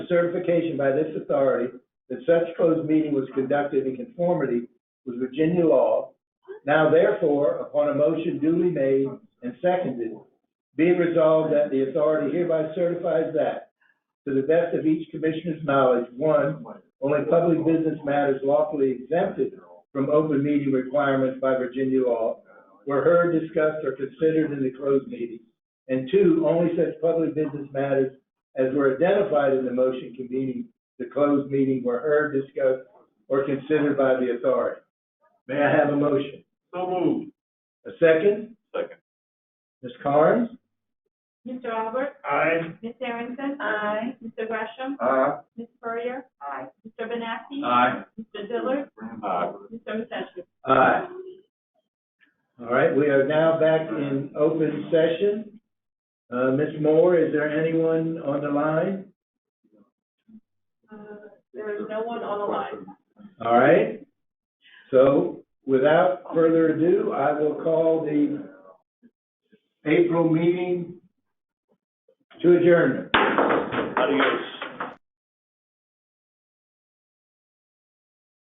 certification by this authority that such closed meeting was conducted in conformity with Virginia law. Now therefore, upon a motion duly made and seconded, be it resolved that the authority hereby certifies that, to the best of each commissioner's knowledge, one, only public business matters lawfully exempted from open meeting requirements by Virginia law were heard, discussed, or considered in the closed meeting. And two, only such public business matters as were identified in the motion convening the closed meeting were heard, discussed, or considered by the authority. May I have a motion? So moved. A second? Second. Ms. Carnes? Mr. Albert? Aye. Ms. Harrington? Aye. Mr. Gresham? Aye. Ms. Puryer? Aye. Mr. Benassi? Aye. Mr. Dillard? Aye. Mr. Mcechnie? Aye. All right, we are now back in open session. Uh, Ms. Moore, is there anyone on the line? Uh, There is no one on the line. All right. So without further ado, I will call the April meeting to adjournment. Adios.